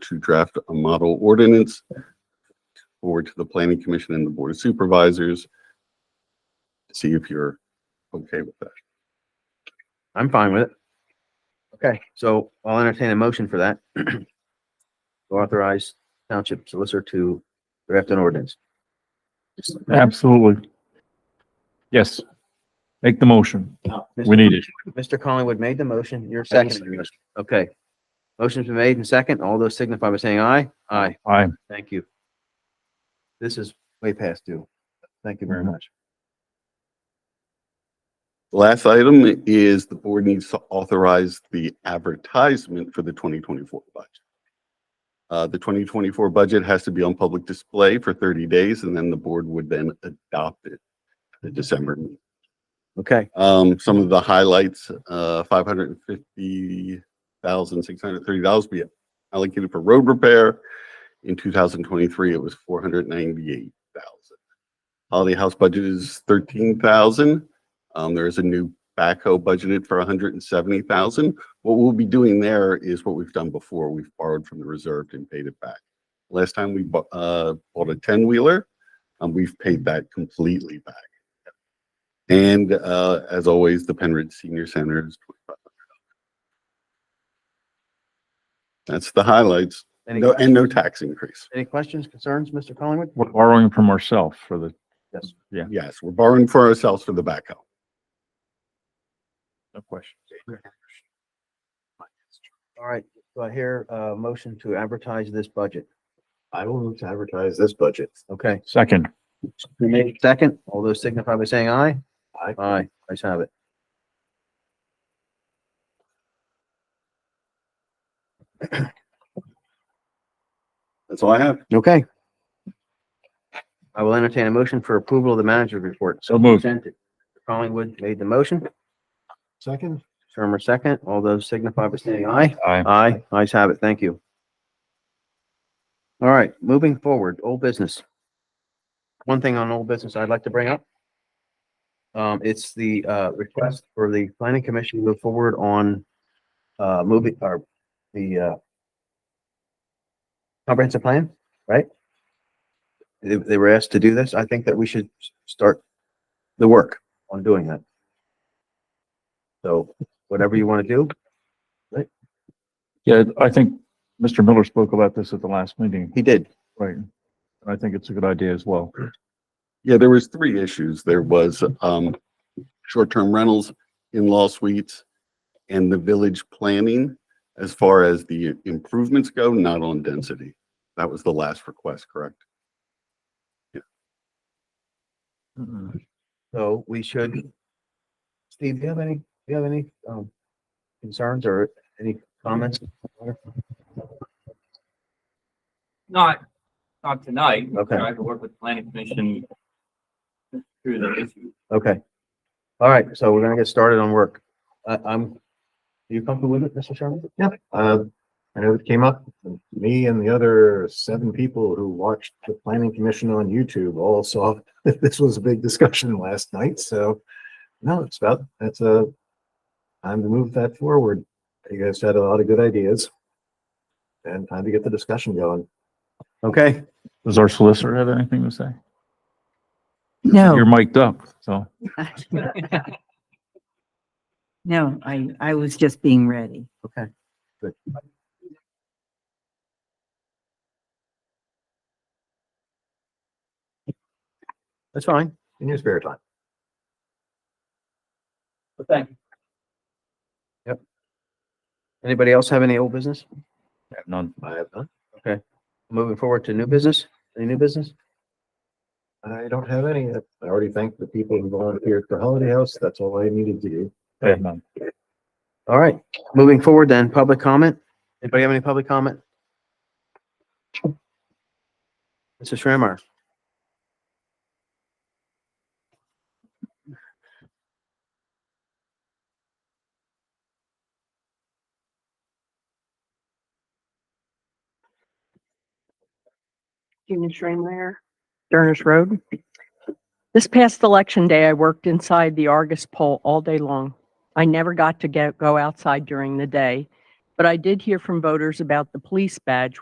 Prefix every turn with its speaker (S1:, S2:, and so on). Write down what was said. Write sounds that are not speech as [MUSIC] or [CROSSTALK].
S1: to draft a model ordinance forward to the planning commission and the board of supervisors. See if you're okay with that.
S2: I'm fine with it. Okay, so I'll entertain a motion for that. [CLEARS THROAT] To Authorize township solicitor to draft an ordinance.
S3: Absolutely. Yes. Make the motion. We need it.
S2: Mr. Collingwood made the motion. You're
S3: Second.
S2: second. Okay. Motion's been made and second. All those signify by saying aye. Aye.
S3: Aye.
S2: Thank you. This is way past due. Thank you very much.
S1: The Last item is the board needs to authorize the advertisement for the twenty twenty-four budget. Uh, the twenty twenty-four budget has to be on public display for thirty days and then the board would then adopt it at the December. meeting.
S2: Okay,
S1: Um, some of the highlights, uh, five hundred and fifty thousand, six hundred and thirty dollars be allocated for road repair. In two thousand twenty-three, it was four hundred ninety-eight thousand. Holiday House budget is thirteen thousand. Um, there is a new backhoe budgeted for hundred and seventy thousand. What we'll be doing there is what we've done before. We've borrowed from the reserved and paid it back. Last time we bought, uh, bought a ten-wheeler, and we've paid that completely back. And uh, as always, the Penridge Senior Center is $2,500. That's the highlights.
S2: any,
S1: No, and no tax increase.
S2: any questions, concerns, Mr. Collingwood?
S3: We're borrowing from ourselves for the,
S2: Yes.
S1: Yes, we're borrowing for ourselves for the backhoe.
S3: no question.
S2: All right, do I hear a motion to advertise this budget?
S4: I will move to advertise this budget.
S2: Okay,
S3: Second,
S2: we made second. All those signify by saying aye.
S4: Aye.
S2: Aye, ayes have it.
S1: That's all I have.
S2: Okay. I will entertain a motion for approval of the manager report.
S3: so moved.
S2: Presented. Collingwood made the motion.
S4: Second?
S2: Shermer second. All those signify by saying aye.
S3: Aye.
S2: Aye. Ayes have it. Thank you. All right, moving forward, old business. One thing on old business I'd like to bring up. Um, it's the, uh, request for the planning commission to move forward on, uh, moving, or the, uh, comprehensive plan, right? They, they were asked to do this. I think that we should s- start the work on doing that. So whatever you want to do,
S3: Yeah, I think Mr. Miller spoke about this at the last meeting,
S2: he did.
S3: right? And I think it's a good idea as well.
S1: Yeah, there was three issues. There was um, short-term rentals, in-law suites, and the village planning as far as the improvements go, not on density. That was the last request, correct?
S3: Mm-mm.
S2: So we should. Steve, do you have any, do you have any, um, concerns or any comments?
S5: Not, not tonight.
S2: Okay.
S5: I have to work with the planning commission through the issue.
S2: Okay. All right, so we're gonna get started on work. I, I'm, you comfortable with it, Mr. Sherman?
S4: Yeah. Uh, I know it came up, me and the other seven people who watched the planning commission on YouTube all saw that this was a big discussion last night, so no, it's about, that's a time to move that forward. You guys had a lot of good ideas. And time to get the discussion going.
S2: Okay,
S3: Does our solicitor have anything to say?
S6: No,
S3: You're mic'd up, so.
S6: [LAUGHS] no, I, I was just being ready.
S2: okay. That's fine.
S4: In your spare time.
S5: But thank you.
S2: Anybody else have any old business?
S3: I have None.
S4: I have none.
S2: Moving forward to new business, any new business?
S4: I don't have any. I already thanked the people who volunteered for Holiday House. That's all I needed to do.
S3: I have none.
S2: All right, moving forward then, public comment. Anybody have any public comment? Mr. Schremer,
S7: Gina Schremeyer, Durners Road. This past election day, I worked inside the Argus poll all day long. I never got to get, go outside during the day, but I did hear from voters about the police badge,